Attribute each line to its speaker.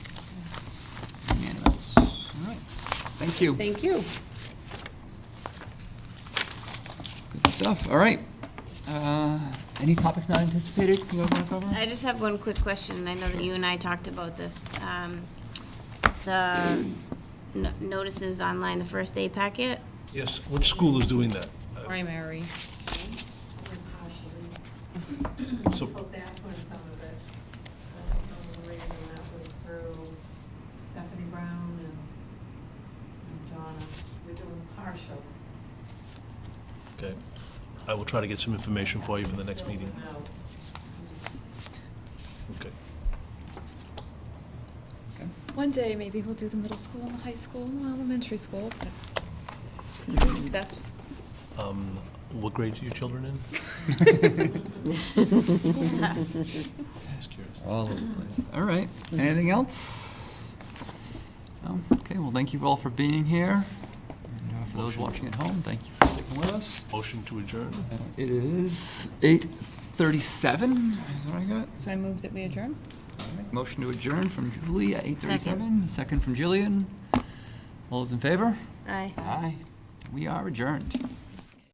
Speaker 1: Thank you.
Speaker 2: Thank you.
Speaker 1: Good stuff. All right. Uh, Any topics not anticipated you guys want to cover?
Speaker 3: I just have one quick question. I know that you and I talked about this. Um, The no- notices online, the first aid packet.
Speaker 4: Yes, which school is doing that?
Speaker 2: Primary.
Speaker 4: So,
Speaker 5: go back on some of it. I don't know the reason that was through Stephanie Brown and and Donna. We're doing partial.
Speaker 4: okay, I will try to get some information for you for the next meeting.
Speaker 5: building out.
Speaker 4: Okay.
Speaker 6: One day, maybe we'll do the middle school and the high school and the elementary school. but baby Steps.
Speaker 4: Um, What grade are your children in? Just curious.
Speaker 1: All over the place. All right. Anything else? No? Okay, well, thank you all for being here. And uh, For those watching at home, thank you for sticking with us. Uh,
Speaker 4: Motion to adjourn?
Speaker 1: It is 8:37, is what I got.
Speaker 2: So I moved that we adjourn?
Speaker 1: Motion to adjourn from Julie at 8:37. Second from Jillian. All those in favor?
Speaker 3: Aye.
Speaker 1: Aye. We are adjourned.